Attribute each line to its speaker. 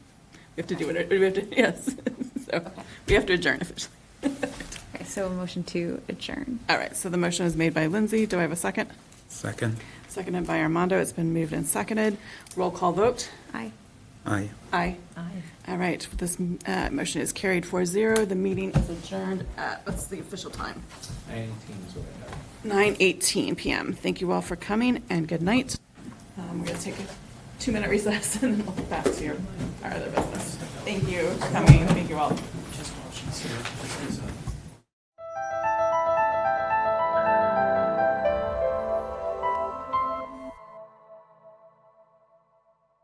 Speaker 1: We have to do it, we have to, yes. So
Speaker 2: Okay.
Speaker 1: we have to adjourn officially.
Speaker 2: Okay, so a motion to adjourn.
Speaker 1: All right, so the motion is made by Lindsay. Do I have a second?
Speaker 3: Second.
Speaker 1: Seconded by Armando. It's been moved and seconded. Roll call vote.
Speaker 2: Aye.
Speaker 3: Aye.
Speaker 1: Aye.
Speaker 2: Aye.
Speaker 1: All right, this uh, motion is carried 4-0. The meeting is adjourned at, what's the official time? 9:18 PM. Thank you all for coming and good night. Um, We're going to take a two-minute recess and then we'll get back to your- our other business. Thank you for coming. Thank you all.